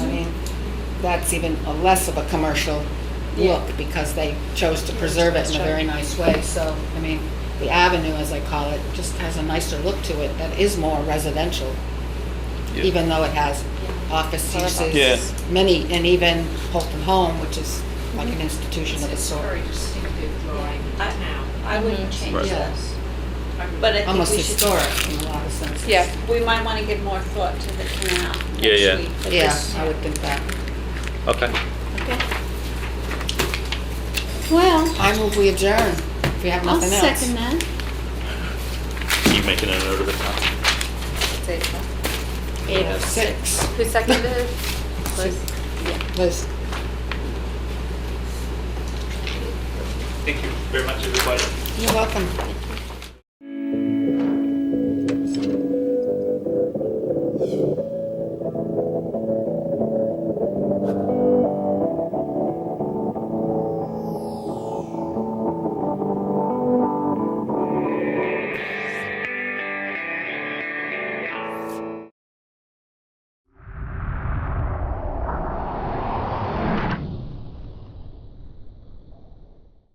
that's even a less of a commercial look because they chose to preserve it in a very nice way. So, I mean, the avenue, as I call it, just has a nicer look to it that is more residential, Yeah. even though it has office uses. Yeah. Many, and even Holton Home, which is like an institution of its It's a sort. very distinctive drawing of I- town. I wouldn't change Right. that, Yes. but I think Almost we should, historic in a lot of senses. yeah, we might want to give more thought to the canal next Yeah, yeah. week. but Yeah, this- I would think that. Okay. Well, I move we adjourn if we have I'll nothing else. second that. You making a note of it now? Eight oh six. Who seconded? Liz? Liz. Thank you very much, everybody. You're welcome.